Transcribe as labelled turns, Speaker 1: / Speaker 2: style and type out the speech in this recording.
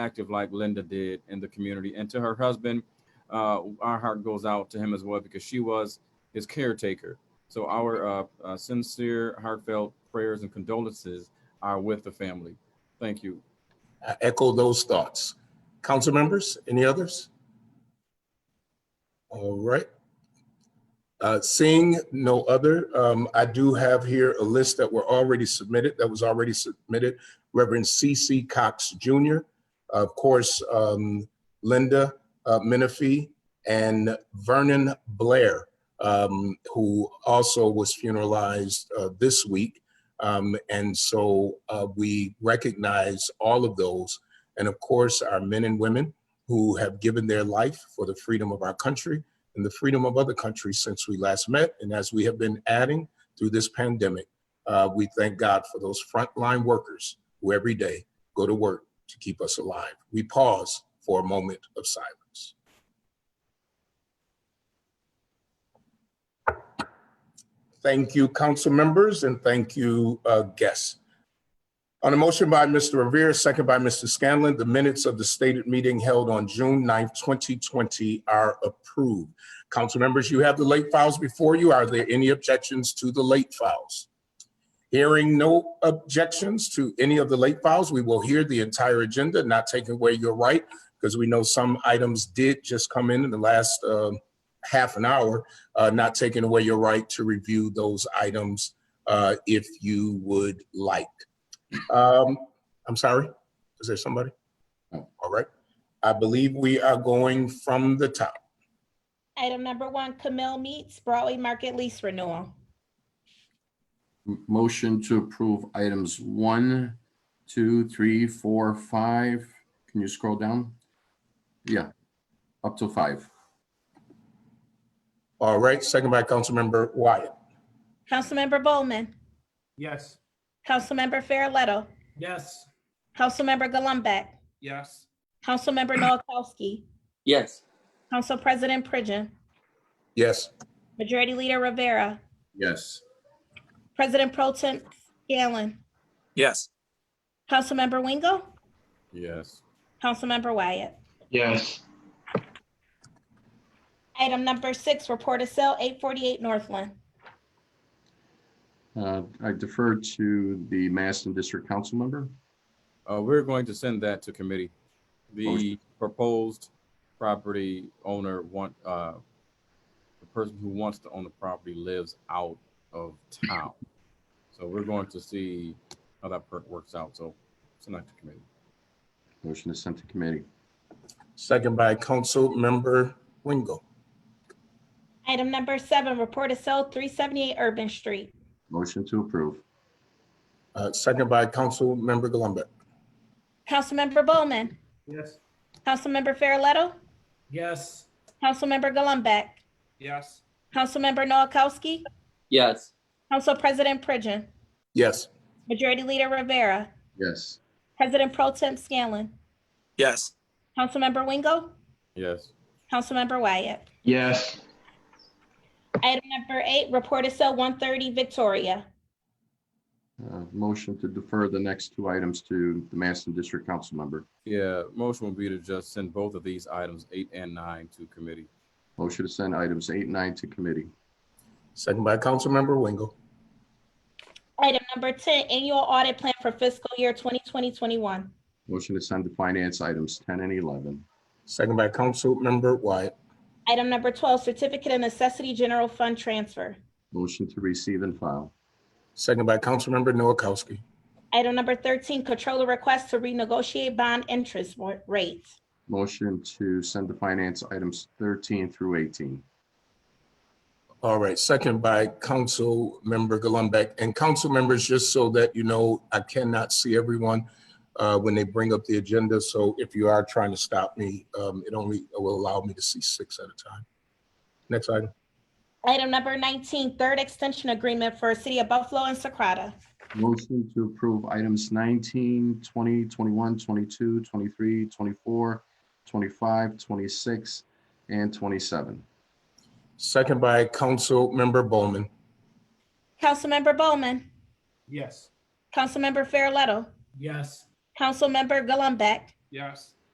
Speaker 1: active like Linda did in the community. And to her husband, uh, our heart goes out to him as well because she was his caretaker. So our uh, uh, sincere, heartfelt prayers and condolences are with the family. Thank you.
Speaker 2: I echo those thoughts. Council members, any others? All right. Uh, Seeing no other, um, I do have here a list that were already submitted, that was already submitted. Reverend C.C. Cox Jr., of course, um, Linda uh, Menifee, and Vernon Blair, um, who also was funeralized uh, this week. Um, and so uh, we recognize all of those. And of course, our men and women who have given their life for the freedom of our country and the freedom of other countries since we last met. And as we have been adding through this pandemic, uh, we thank God for those frontline workers who every day go to work to keep us alive. We pause for a moment of silence. Thank you, council members, and thank you, uh, guests. On a motion by Mr. Revere, second by Mr. Scanlon, the minutes of the stated meeting held on June 9th, 2020 are approved. Council members, you have the late files before you. Are there any objections to the late files? Hearing no objections to any of the late files, we will hear the entire agenda, not taking away your right, because we know some items did just come in in the last um, half an hour, uh, not taking away your right to review those items uh, if you would like. Um, I'm sorry, is there somebody?
Speaker 1: No.
Speaker 2: All right, I believe we are going from the top.
Speaker 3: Item number one, Camille Meats Broadway Market Lease Renewal.
Speaker 4: M- Motion to approve items one, two, three, four, five. Can you scroll down? Yeah, up to five.
Speaker 2: All right, second by Councilmember Wyatt.
Speaker 3: Councilmember Bowman,
Speaker 5: Yes.
Speaker 3: Councilmember Farrelletto,
Speaker 5: Yes.
Speaker 3: Councilmember Gullumbeck,
Speaker 5: Yes.
Speaker 3: Councilmember Noakowski,
Speaker 6: yes,
Speaker 3: Council President Pridgen,
Speaker 2: Yes,
Speaker 3: Majority Leader Rivera,
Speaker 4: Yes.
Speaker 3: President Pro Tem Scanlon,
Speaker 7: yes,
Speaker 3: Councilmember Wingo,
Speaker 1: Yes.
Speaker 3: Councilmember Wyatt.
Speaker 8: yes,
Speaker 3: Item number six, Report of Sale 848 Northland.
Speaker 4: Uh, I defer to the Maston District Council member.
Speaker 1: Uh, we're going to send that to committee. The
Speaker 4: Motion.
Speaker 1: proposed property owner want, uh, the person who wants to own the property lives out of town. So we're going to see how that perk works out. So send that to committee.
Speaker 4: Motion is sent to committee.
Speaker 2: second by Councilmember Wingo.
Speaker 3: Item number seven, Report of Sale 378 Urban Street.
Speaker 4: Motion to approve.
Speaker 2: Uh, Second by Councilmember Gullumbeck.
Speaker 3: Councilmember Bowman,
Speaker 5: Yes.
Speaker 3: Councilmember Farrelletto,
Speaker 5: Yes.
Speaker 3: Councilmember Gullumbeck,
Speaker 5: Yes.
Speaker 3: Councilmember Noakowski,
Speaker 6: yes,
Speaker 3: Council President Pridgen,
Speaker 2: Yes,
Speaker 3: Majority Leader Rivera,
Speaker 4: Yes.
Speaker 3: President Pro Tem Scanlon,
Speaker 7: yes,
Speaker 3: Councilmember Wingo,
Speaker 1: Yes.
Speaker 3: Councilmember Wyatt.
Speaker 8: yes,
Speaker 3: Item number eight, Report of Sale 130 Victoria.
Speaker 4: Uh, Motion to defer the next two items to the Maston District Council member.
Speaker 1: Yeah, motion would be to just send both of these items, eight and nine, to committee.
Speaker 4: Motion to send items eight and nine to committee.
Speaker 2: second by Councilmember Wingo.
Speaker 3: Item number 10, Annual Audit Plan for Fiscal Year 2020-21.
Speaker 4: Motion to send to finance items 10 and 11.
Speaker 2: Second by Councilmember Wyatt.
Speaker 3: Item number 12, Certificate of Necessity General Fund Transfer.
Speaker 4: Motion to receive and file.
Speaker 2: Second by Councilmember Noakowski.
Speaker 3: Item number 13, Controller Request to Renegotiate Bond Interest wa- Rates.
Speaker 4: Motion to send to finance items 13 through 18.
Speaker 2: All right, second by Councilmember Gullumbeck. And council members, just so that you know, I cannot see everyone uh, when they bring up the agenda. So if you are trying to stop me, um, it only will allow me to see six at a time. Next item.
Speaker 3: Item number 19, Third Extension Agreement for City of Buffalo and Socrata.
Speaker 4: Motion to approve items 19, 20, 21, 22, 23, 24, 25, 26, and 27.
Speaker 2: Second by Councilmember Bowman.
Speaker 3: Councilmember Bowman,
Speaker 5: Yes.
Speaker 3: Councilmember Farrelletto,
Speaker 5: Yes.
Speaker 3: Councilmember Gullumbeck,
Speaker 5: yes.